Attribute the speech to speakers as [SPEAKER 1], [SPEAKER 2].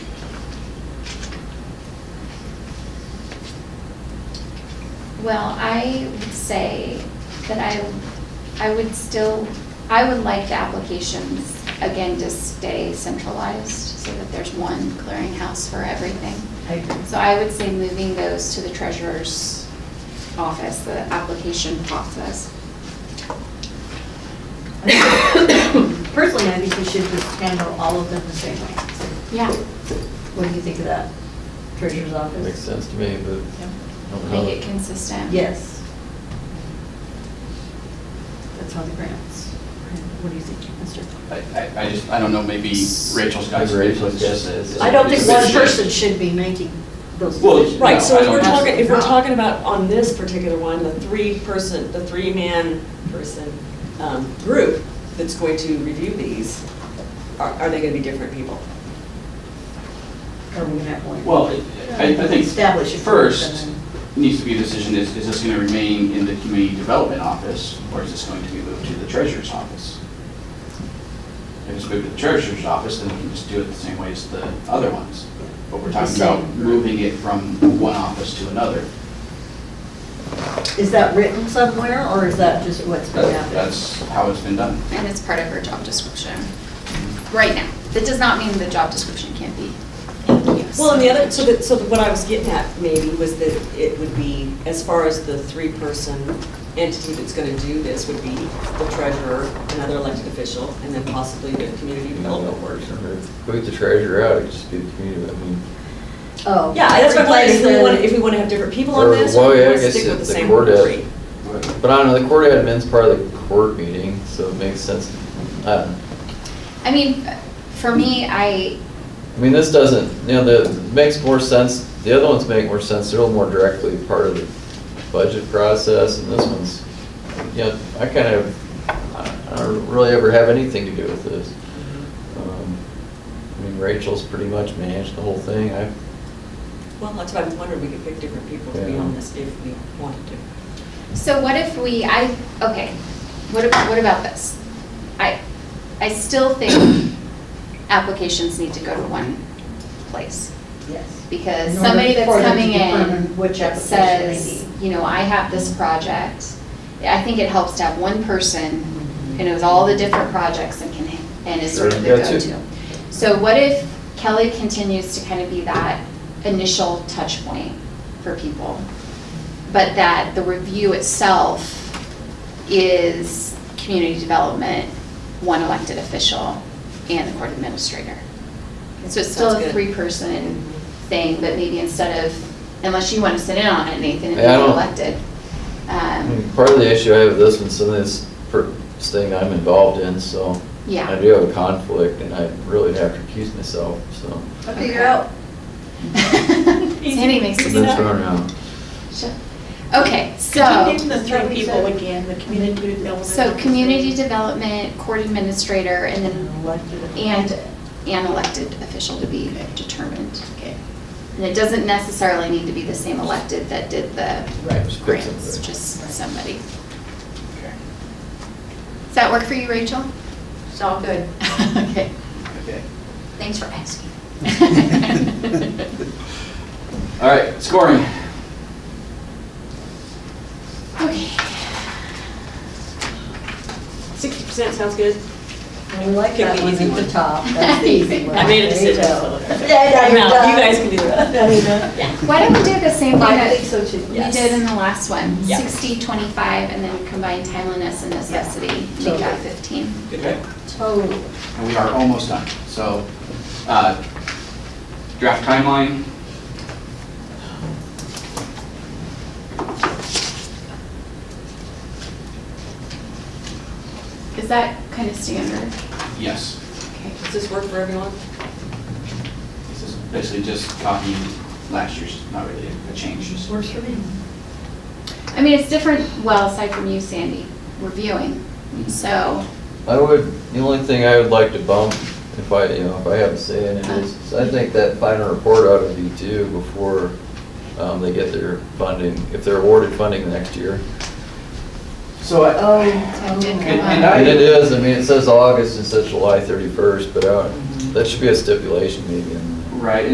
[SPEAKER 1] Well, I would say that I, I would still, I would like the applications, again, to stay centralized, so that there's one clearinghouse for everything.
[SPEAKER 2] I agree.
[SPEAKER 1] So I would say moving those to the treasurer's office, the application process.
[SPEAKER 2] Personally, I think we should just handle all of them the same way.
[SPEAKER 1] Yeah,
[SPEAKER 2] What do you think of that? Treasurer's office?
[SPEAKER 3] Makes sense to me, but I don't know.
[SPEAKER 1] make it consistent.
[SPEAKER 2] Yes. That's how the grants. What do you think, Mr.?
[SPEAKER 4] I, I I just, I don't know, maybe Rachel's got.
[SPEAKER 3] Maybe Rachel's
[SPEAKER 4] it's just-
[SPEAKER 3] got it.
[SPEAKER 2] I don't think one
[SPEAKER 4] It's just-
[SPEAKER 2] person should be making those
[SPEAKER 4] Well,
[SPEAKER 2] decisions.
[SPEAKER 4] No,
[SPEAKER 5] Right, so
[SPEAKER 4] I
[SPEAKER 5] if we're
[SPEAKER 4] don't-
[SPEAKER 5] talking, if we're
[SPEAKER 2] No.
[SPEAKER 5] talking about on this particular one, the three-person, the three-man person um, group that's going to review these, are are they gonna be different people?
[SPEAKER 2] Or we can have one.
[SPEAKER 4] Well, it- I, I think
[SPEAKER 2] Establish it
[SPEAKER 4] first
[SPEAKER 2] and
[SPEAKER 4] needs to be a decision, is, is this going to remain in the community development office, or is this going to be moved to the treasurer's office? If it's moved to the treasurer's office, then we can just do it the same way as the other ones. But we're talking about
[SPEAKER 2] same.
[SPEAKER 4] moving it from one office to another.
[SPEAKER 2] Is that written somewhere, or is that just what's been
[SPEAKER 4] That-
[SPEAKER 2] happening?
[SPEAKER 4] That's how it's been done.
[SPEAKER 1] And it's part of her job description, right now. That does not mean the job description can't be used.
[SPEAKER 5] Well, and the other, so that, so that what I was getting at maybe was that it would be, as far as the three-person entity that's gonna do this would be the treasurer, another elected official, and then possibly the community development worker.
[SPEAKER 3] Put the treasurer out, it'd just be the community, I mean.
[SPEAKER 2] Oh.
[SPEAKER 5] Yeah, that's my point, if we
[SPEAKER 2] replace
[SPEAKER 5] want,
[SPEAKER 2] the-
[SPEAKER 5] if we wanna have different people on
[SPEAKER 3] Or-
[SPEAKER 5] this, or
[SPEAKER 3] well,
[SPEAKER 5] we
[SPEAKER 3] yeah, I
[SPEAKER 5] wanna
[SPEAKER 3] guess
[SPEAKER 5] stick
[SPEAKER 3] if
[SPEAKER 5] with the
[SPEAKER 3] the
[SPEAKER 5] same
[SPEAKER 3] court has-
[SPEAKER 5] three.
[SPEAKER 3] But I don't know, the court admin's part of the court meeting, so it makes sense. I don't know.
[SPEAKER 1] I mean, for me, I,
[SPEAKER 3] I mean, this doesn't, you know, the, it makes more sense, the other ones make more sense, they're a little more directly part of the budget process, and this one's, you know, I kind of, I I don't really ever have anything to do with this. Um, I mean, Rachel's pretty much managed the whole thing, I,
[SPEAKER 5] Well, that's what I'm wondering, we could pick different people to be
[SPEAKER 3] Yeah.
[SPEAKER 5] on this if we wanted to.
[SPEAKER 1] So what if we, I, okay, what about, what about this? I, I still think applications need to go to one place,
[SPEAKER 2] Yes.
[SPEAKER 1] because
[SPEAKER 2] In order
[SPEAKER 1] somebody that's
[SPEAKER 2] for them to
[SPEAKER 1] coming in
[SPEAKER 2] determine which
[SPEAKER 1] that
[SPEAKER 2] application they
[SPEAKER 1] says,
[SPEAKER 2] need.
[SPEAKER 1] you know, I have this project, I think it helps to have one person who knows all the different projects and can, and is sort of the
[SPEAKER 3] Sure, gotcha.
[SPEAKER 1] go-to. So what if Kelly continues to kind of be that initial touch point for people? but that the review itself is community development, one elected official, and the court administrator. So it's still
[SPEAKER 5] Sounds
[SPEAKER 1] a
[SPEAKER 5] good.
[SPEAKER 1] three-person thing, but maybe instead of, unless you want to sit in on it, Nathan, and
[SPEAKER 3] Yeah, I
[SPEAKER 1] be
[SPEAKER 3] don't- Hmm.
[SPEAKER 1] elected.
[SPEAKER 3] I
[SPEAKER 1] Um,
[SPEAKER 3] mean, part of the issue I have with this one, some of this per- this thing I'm involved in, so.
[SPEAKER 1] Yeah.
[SPEAKER 3] I do have a conflict, and I really have to accuse myself, so.
[SPEAKER 2] I'll figure out.
[SPEAKER 1] Sandy makes
[SPEAKER 3] I've
[SPEAKER 1] it
[SPEAKER 3] been
[SPEAKER 1] sound-
[SPEAKER 3] thrown out.
[SPEAKER 1] Shut- Okay, so.
[SPEAKER 6] Could you name the three people again, the community development?
[SPEAKER 1] So community development, court administrator, and then
[SPEAKER 6] Elected.
[SPEAKER 1] And an elected official to be determined. Okay. And it doesn't necessarily need to be the same elected that did the
[SPEAKER 3] Right. Just pick
[SPEAKER 1] grants,
[SPEAKER 3] somebody.
[SPEAKER 1] just somebody. Does that work for you, Rachel?
[SPEAKER 6] It's all good.
[SPEAKER 1] Okay,
[SPEAKER 4] Okay.
[SPEAKER 1] thanks for asking.
[SPEAKER 4] All right, scoring.
[SPEAKER 1] Okay.
[SPEAKER 5] Sixty percent sounds good.
[SPEAKER 2] We like
[SPEAKER 5] Pick
[SPEAKER 2] that
[SPEAKER 5] the
[SPEAKER 2] one
[SPEAKER 5] easy
[SPEAKER 2] at the
[SPEAKER 5] one.
[SPEAKER 2] top, that's the easy one.
[SPEAKER 5] I made a
[SPEAKER 2] There you
[SPEAKER 5] decision,
[SPEAKER 2] go.
[SPEAKER 5] so.
[SPEAKER 2] Yeah, yeah,
[SPEAKER 5] I'm
[SPEAKER 2] you're
[SPEAKER 5] out.
[SPEAKER 2] done.
[SPEAKER 5] You guys can do the rest.
[SPEAKER 2] No, you're not.
[SPEAKER 1] Why don't we do the same thing
[SPEAKER 2] I think
[SPEAKER 1] that
[SPEAKER 2] so too.
[SPEAKER 1] we
[SPEAKER 5] Yes.
[SPEAKER 1] did in the last one?
[SPEAKER 5] Yeah.
[SPEAKER 1] Sixty, twenty-five, and then combine timeliness and necessity, make
[SPEAKER 2] Totally.
[SPEAKER 1] out fifteen.
[SPEAKER 4] Okay.
[SPEAKER 2] Totally.
[SPEAKER 4] And we are almost done. So, uh, draft timeline.
[SPEAKER 1] Is that kind of standard?
[SPEAKER 4] Yes.
[SPEAKER 1] Okay.
[SPEAKER 5] Does this work for everyone?
[SPEAKER 4] This is basically just copying last year's, not really a change, just
[SPEAKER 2] Works for me.
[SPEAKER 1] I mean, it's different, well, aside from you, Sandy, reviewing, so,
[SPEAKER 3] I would, the only thing I would like to bump, if I, you know, if I have a say in it, is is I think that final report ought to be due before um, they get their funding, if they're awarded funding next year.
[SPEAKER 4] So I,
[SPEAKER 2] Oh,
[SPEAKER 1] did
[SPEAKER 4] and
[SPEAKER 2] totally.
[SPEAKER 4] and
[SPEAKER 3] And it
[SPEAKER 4] I,
[SPEAKER 3] is, I mean, it uh,
[SPEAKER 1] Mm-hmm.
[SPEAKER 3] says August, it says July 31st, but I don't- that should be a stipulation maybe in there.
[SPEAKER 4] right,